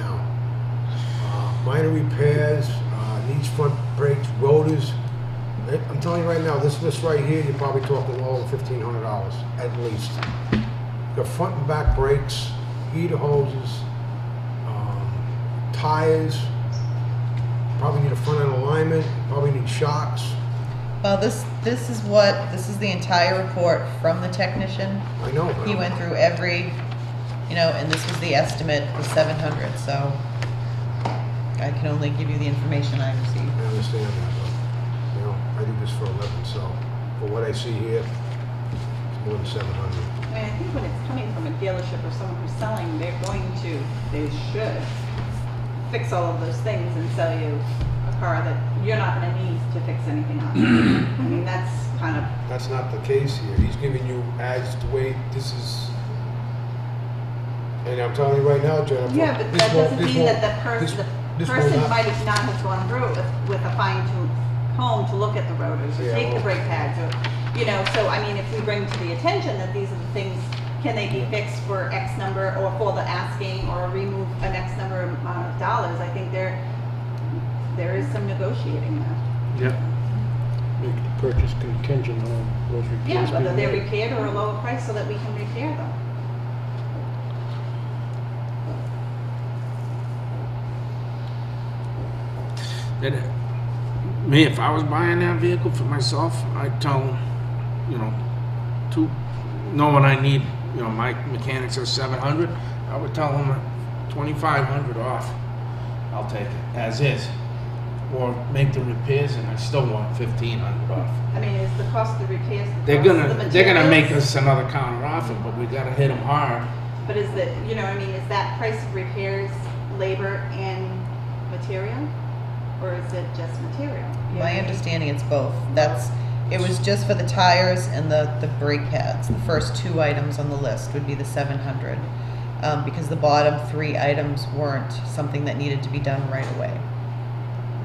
uh, minor repairs, uh, needs front brakes, rotors. Eh, I'm telling you right now, this list right here, you're probably talking low of fifteen hundred dollars, at least. You got front and back brakes, heater hoses, um, tires, probably need a front end alignment, probably need shocks. Well, this, this is what, this is the entire report from the technician. I know. I He know. went through every, you know, and this was the estimate, the seven hundred, so I can only give you the information I received. I understand that, but, you know, I do this for a living, so, for what I see here, it's more than seven hundred. I mean, I think when it's coming from a dealership or someone who's selling, they're going to, they should fix all of those things and sell you a car that you're not gonna need to fix anything on. I mean, that's kind of, That's not the case here, he's giving you as the way this is, and I'm telling you right now, Jennifer. yeah, but this that won't- doesn't this mean won't- that the person, this- the this will person not- might have not have gone through it with, with a fine tooth comb to look at the rotors or Yeah, take the well- brake pads or, you know, so I mean, if we bring to the attention that these are the things, can they be fixed for X number or for the asking or remove an X number amount of uh, dollars, I think there, there is some negotiating there. Yeah. Make the purchase contingent on those repairs. Yeah, whether being they're made. repaired or a lower price so that we can repair them. That, me, if I was buying that vehicle for myself, I'd tell, you know, to, knowing I need, you know, my mechanics are seven hundred, I would tell them twenty-five hundred off. I'll take it as is. Or make the repairs and I still want fifteen hundred off. I mean, is the cost of the repairs, the They're cost of the gonna, they're gonna make materials? us another counter offer, but we gotta hit them hard. But is that, you know, what I mean, is that price of repairs, labor, and material? Or is it just material? You know what I My mean? understanding, it's both. That's, it was just for the tires and the, the brake pads. The first two items on the list would be the seven hundred. Um, because the bottom three items weren't something that needed to be done right away.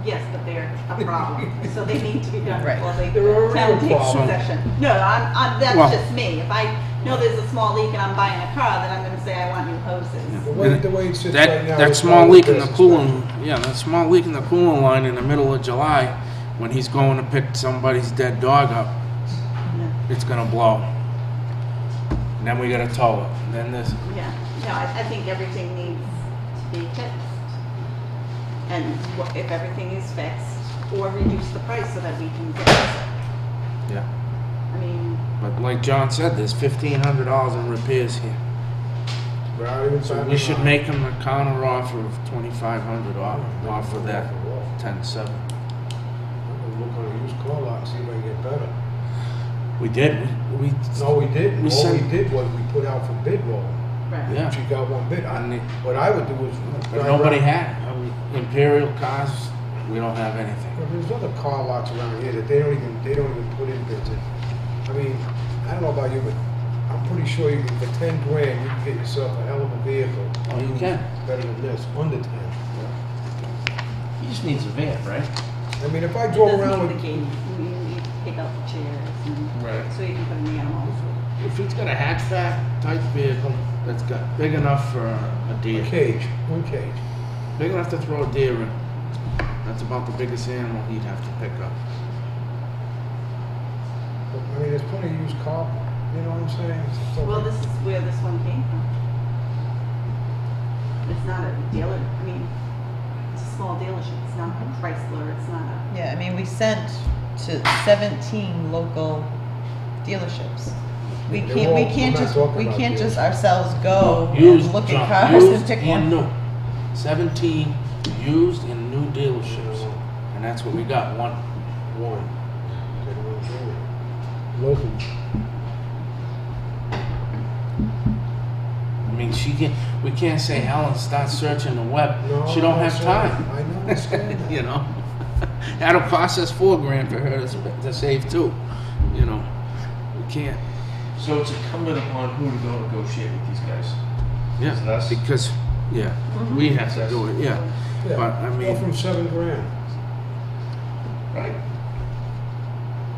Yes, but they're a problem, so they need to be done Right. before they. They're a real town takes problem. possession. No, I'm, I'm, Well- that's just me. If I know there's a small leak and I'm buying a car, then I'm gonna say I want new The hoses. way, the way it sits right That, now. that it's small probably leak in the business. cooling, yeah, that small leak in the cooling line in the middle of July, when he's going to pick somebody's dead dog up, No, it's gonna blow. And then we gotta tow it, then this, Yeah, no, I, I think everything needs to be fixed. And wha- if everything is fixed, or reduce the price so that we can fix it. yeah. I mean, But like John said, there's fifteen hundred dollars in repairs here. We're not even So talking we should about- make him a counter offer of twenty-five hundred off, off of that ten-seven. I'm gonna Look on a used car lot and see if I can get better. We did, we, we- No, we didn't. We All we sent- did was we put out for bid roll. right. yeah. She got one bid. I, And it- what I would do is. But nobody had it. I mean, Imperial cars, we don't have anything. Well, There's other car lots around here that they don't even, they don't even put in bids in. I mean, I don't know about you, but I'm pretty sure you can, for ten grand, you can get yourself a hell of a vehicle. Oh, you can. Better than this, under ten. He just needs a van, right? I mean, if I drove Doesn't around need the with. cage. We need to pick out the chairs and Right. so you can put an animal. If he's got a hatchback type vehicle that's got big enough for a A deer, cage, one cage. big enough to throw a deer in, that's about the biggest animal he'd have to pick up. But, I mean, there's plenty of used car, you know what I'm saying? It's still- Well, this is where this one came from. It's not a dealer, I mean, it's a small dealership, it's not a Chrysler, it's not a, Yeah, I mean, we sent to seventeen local dealerships. We They're can't, we all- can't I'm not just, talking we about can't just dealers. ourselves go Used, and look John, at cars and used pick one. new. Seventeen used and new dealerships, and that's what we got, one. One. They don't wanna do it. Local. I mean, she can we can't say Helen, start searching the web. No, She don't I'm have sorry. time. I know, I understand that. you know, that'll cost us four grand for her to, sp- to save too. You know, we can't. So it's incumbent upon who to go negotiate with these guys. Yeah, Is it us? because yeah, we have to do it. Yeah, Yeah. But, I Go mean- from seven grand. Right?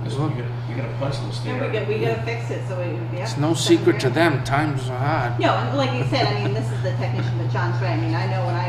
Because Well- you're gonna, you're gonna punch those and we there. got, we gotta fix it, so it would be. it's no secret to them. Times are hard. No, and like you said, I mean, this is the technician, but John's right, I mean, I know when I